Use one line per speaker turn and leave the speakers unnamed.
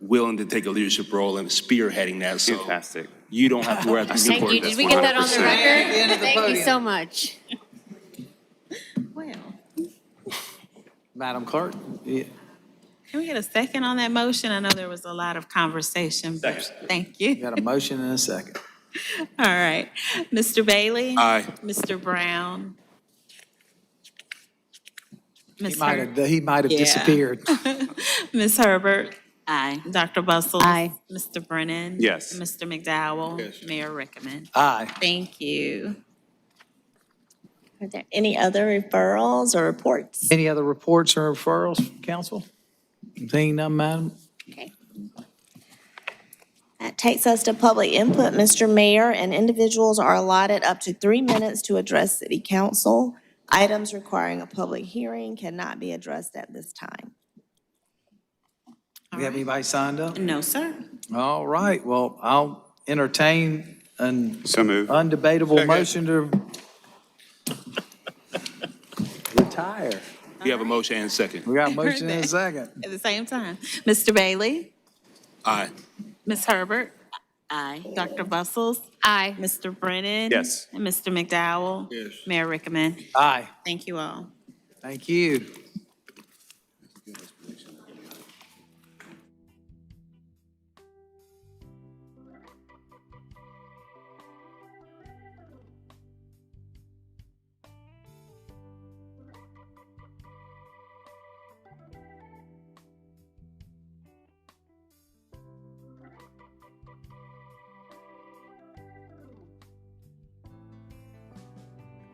willing to take a leadership role in spearheading that, so.
Fantastic.
You don't have to worry about the
Thank
Newport.
you. Did we get that on the
100%.
record? Thank you so much.
Wow.
Madam Clerk? Yeah.
Can we get a second on that motion? I know there was a lot of conversation. but
Second.
Thank
We
you.
Got a motion and a second.
All right. Mr. Bailey?
Uh,
Aye.
Mr. Brown?
He
Ms.
might
Her-
have, he might have
Yeah.
disappeared.
Ms. Herbert? Aye. Dr. Bustles?
Aye.
Mr. Brennan?
Yes.
And Mr. McDowell? Mayor Rickaman?
Aye.
Uh, Thank you.
Are there any other referrals or reports?
Any other reports or referrals, council? Seeing none, Madam?
Okay. That takes us to public input, Mr. Mayor, and individuals are allotted up to three minutes to address city council. Items requiring a public hearing cannot be addressed at this time.
Do we have anybody signed up?
No, sir.
All right, well, I'll entertain an
So moved.
undebatable motion to retire.
You have a motion and a second.
We got a motion and a second.
At the same time. Mr. Bailey?
Aye.
Ms. Herbert? Aye. Dr. Bustles?
Aye.
Mr. Brennan?
Yes.
And Mr. McDowell? Yes. Mayor Rickaman?
Aye,
Thank you all.
thank you.